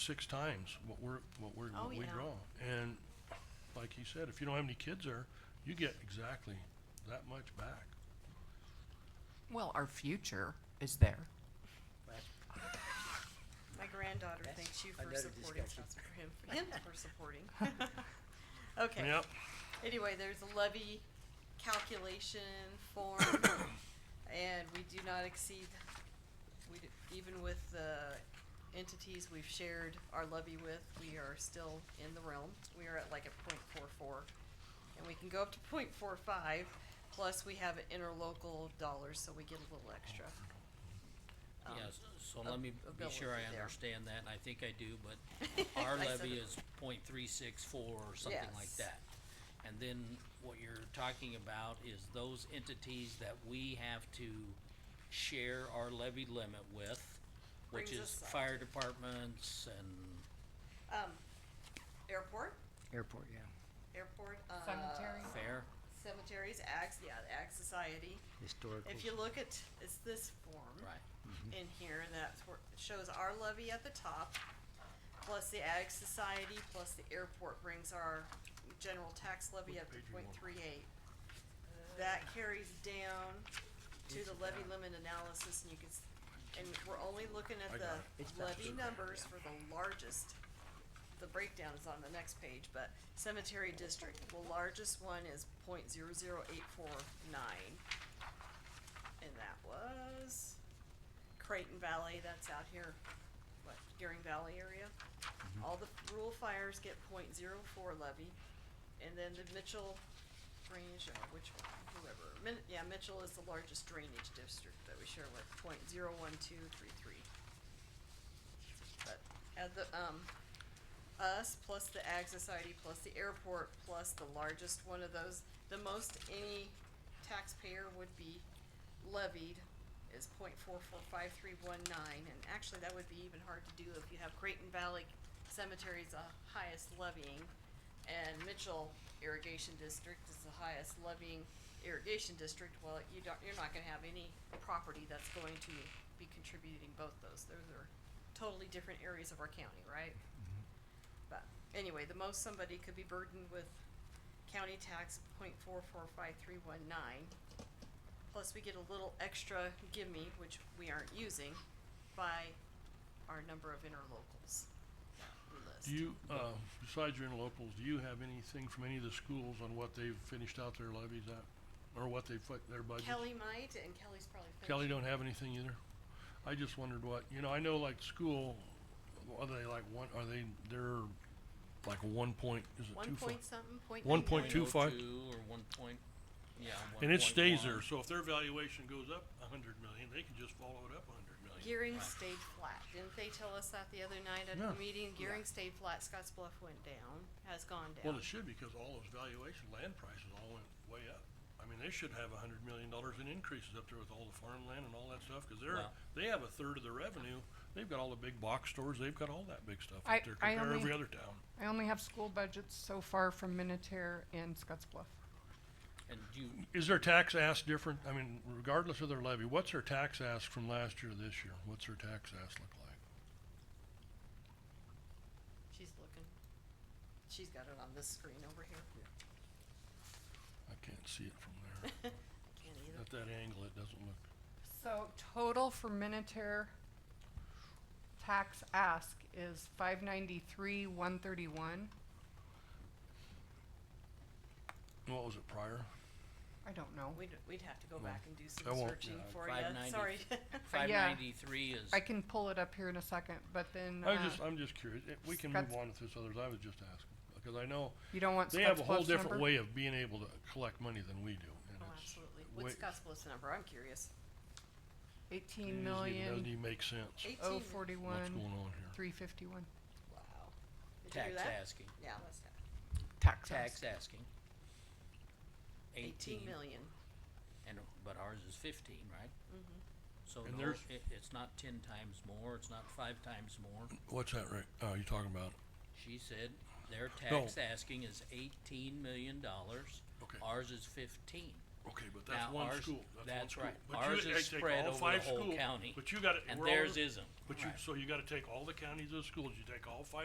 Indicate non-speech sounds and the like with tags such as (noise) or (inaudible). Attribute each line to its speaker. Speaker 1: six times what we're, what we're,
Speaker 2: Oh,
Speaker 1: what we
Speaker 2: yeah.
Speaker 1: draw. And like he said, if you don't have any kids there, you get exactly that much back.
Speaker 3: Well, our future is there.
Speaker 2: My granddaughter
Speaker 4: That's
Speaker 2: thanks you for
Speaker 4: another
Speaker 2: supporting,
Speaker 4: discussion.
Speaker 2: that's
Speaker 4: (laughs)
Speaker 2: for him, for him for supporting. (laughs) Okay.
Speaker 1: Yep,
Speaker 2: Anyway, there's a levy calculation
Speaker 4: (coughs)
Speaker 2: form, and we do not exceed, we, d- even with the entities we've shared our levy with, we are still in the realm. We are at like a point four four, and we can go up to point four five, plus we have interlocal dollars, so we get a little extra. Um,
Speaker 4: Yes, so
Speaker 2: ab-
Speaker 4: let me be sure
Speaker 2: ability
Speaker 4: I
Speaker 2: there.
Speaker 4: understand that, and I think I do,
Speaker 2: (laughs)
Speaker 4: but our
Speaker 2: I said
Speaker 4: levy
Speaker 2: it.
Speaker 4: is point three six four or something like
Speaker 2: Yes.
Speaker 4: that. And then what you're talking about is those entities that we have to share our levy limit with, which
Speaker 2: Brings
Speaker 4: is
Speaker 2: us up.
Speaker 4: fire departments and
Speaker 2: Um, airport,
Speaker 5: Airport, yeah,
Speaker 2: airport, uh.
Speaker 3: Cemetery.
Speaker 4: fair.
Speaker 2: Cemeteries, Ag, yeah, the Ag Society.
Speaker 5: historical.
Speaker 2: If you look at, it's this form.
Speaker 4: Right.
Speaker 2: In here, and that's where, it shows our levy at the top, plus the Ag Society, plus the airport brings our general tax levy
Speaker 1: What
Speaker 2: up to
Speaker 1: page are you
Speaker 2: point
Speaker 1: on?
Speaker 2: three eight. That carries down to the levy limit analysis, and you can, s- and we're only looking
Speaker 1: I got
Speaker 2: at the
Speaker 1: it.
Speaker 5: It's not
Speaker 2: levy
Speaker 5: too bad,
Speaker 2: numbers for the largest. The breakdown is on the next page, but cemetery district, the largest one is point zero zero eight four nine. And that was Creighton Valley, that's out here, what, Gearing Valley area. All the rural fires get point zero four levy, and then the Mitchell Range, or which one, whoever, Min, yeah, Mitchell is the largest drainage district that we share with, point zero one two three three. But, at the, um, us, plus the Ag Society, plus the airport, plus the largest one of those, the most any taxpayer would be levied is point four four five three one nine, and actually, that would be even hard to do if you have Creighton Valley Cemetery's the highest levying, and Mitchell Irrigation District is the highest levying irrigation district, well, you don't, you're not gonna have any property that's going to be contributing both those, those are totally different areas of our county, right? But anyway, the most somebody could be burdened with county tax point four four five three one nine. Plus, we get a little extra gimme, which we aren't using, by our number of interlocals. that we list.
Speaker 1: do you, uh, besides your interlocals, do you have anything from any of the schools on what they've finished out their levies at? Or what they've put their budgets?
Speaker 2: Kelly might, and Kelly's probably finished.
Speaker 1: Kelly don't have anything either? I just wondered what, you know, I know like school, are they like one, are they, they're like one point, is it two
Speaker 2: One
Speaker 1: five?
Speaker 2: point something, point
Speaker 1: One
Speaker 2: nine
Speaker 1: point
Speaker 2: million.
Speaker 1: two five.
Speaker 4: 0.02 or one point, yeah.
Speaker 1: And it stays
Speaker 4: 1.1.
Speaker 1: there, so if their valuation goes up a hundred million, they can just follow it up a hundred million.
Speaker 2: Gearing stayed flat. Didn't they tell us that the other night at
Speaker 1: Yeah.
Speaker 2: the meeting? Gearing stayed flat. Scotts Bluff went down, has gone down.
Speaker 1: Well, it should, because all those valuation, land prices all went way up. I mean, they should have a hundred million dollars in increases up there with all the farmland and all that stuff, cause they're,
Speaker 4: Well-
Speaker 1: they have a third of the revenue. They've got all the big box stores, they've got all that big stuff
Speaker 6: I-
Speaker 1: up there,
Speaker 6: I
Speaker 1: compare
Speaker 6: only-
Speaker 1: every other town.
Speaker 6: I only have school budgets so far from Minutair and Scotts Bluff.
Speaker 4: And you,
Speaker 2: Uh,
Speaker 1: Is their tax ask different? I mean, regardless of their levy, what's their tax ask from last year to this year? What's their tax ask look like?
Speaker 2: She's looking. She's got it on this screen over here.
Speaker 1: I can't see it from
Speaker 6: (laughs)
Speaker 1: there.
Speaker 2: I can't either.
Speaker 1: At that angle, it doesn't look.
Speaker 6: So total for Minutair tax ask is five ninety-three, one thirty-one.
Speaker 1: What was it prior?
Speaker 6: I don't know.
Speaker 2: We'd, we'd have to go
Speaker 1: Well,
Speaker 2: back and do
Speaker 1: I
Speaker 2: some
Speaker 1: won't-
Speaker 2: searching
Speaker 1: yeah,
Speaker 2: for
Speaker 4: five
Speaker 2: you.
Speaker 4: ninety-
Speaker 2: Sorry. (laughs)
Speaker 1: (laughs)
Speaker 4: five
Speaker 6: Yeah.
Speaker 4: ninety-three is,
Speaker 6: I can pull it up here in a second, but then,
Speaker 1: I was
Speaker 6: uh,
Speaker 1: just, I'm just curious. If We can move
Speaker 6: Scott's-
Speaker 1: on with this others. I was just asking, because I know
Speaker 6: you don't want
Speaker 1: they have
Speaker 6: Scotts
Speaker 1: a whole
Speaker 6: Bluff's
Speaker 1: different
Speaker 6: number?
Speaker 1: way of being able to collect money than we do. and
Speaker 2: Oh,
Speaker 1: it's
Speaker 2: absolutely.
Speaker 1: way-
Speaker 2: What's Scott's Bluff's number? I'm curious.
Speaker 4: Oh,
Speaker 1: it just
Speaker 6: Eighteen
Speaker 1: even Doesn't
Speaker 6: million,
Speaker 1: even make sense
Speaker 6: oh
Speaker 2: Eighteen.
Speaker 1: what's going
Speaker 6: forty-one,
Speaker 1: on here.
Speaker 6: three fifty-one.
Speaker 2: Wow. Did you
Speaker 4: tax
Speaker 2: hear that?
Speaker 4: asking,
Speaker 2: Yeah, let's have.
Speaker 6: Tax
Speaker 4: tax
Speaker 6: ask.
Speaker 4: asking.
Speaker 2: Eighteen million.
Speaker 4: And, but ours is fifteen, right? So
Speaker 1: And
Speaker 4: no,
Speaker 1: there's-
Speaker 4: it, it's not ten times more, it's not five times more.
Speaker 1: What's that, Rick? Oh, you're talking about,
Speaker 4: She said their
Speaker 1: No.
Speaker 4: tax asking is eighteen million dollars.
Speaker 1: Okay.
Speaker 4: Ours is fifteen.
Speaker 1: Okay, but that's
Speaker 4: Now,
Speaker 1: one
Speaker 4: ours-
Speaker 1: school, that's
Speaker 4: that's
Speaker 1: one
Speaker 4: right.
Speaker 1: school. But you-
Speaker 4: Ours is
Speaker 1: I take
Speaker 4: spread
Speaker 1: all
Speaker 4: over the
Speaker 1: five
Speaker 4: whole
Speaker 1: school-
Speaker 4: county,
Speaker 1: But you gotta,
Speaker 4: and
Speaker 1: we're all,
Speaker 4: theirs isn't.
Speaker 1: but you,
Speaker 3: Right.
Speaker 1: so you gotta take all the counties of schools, you take all five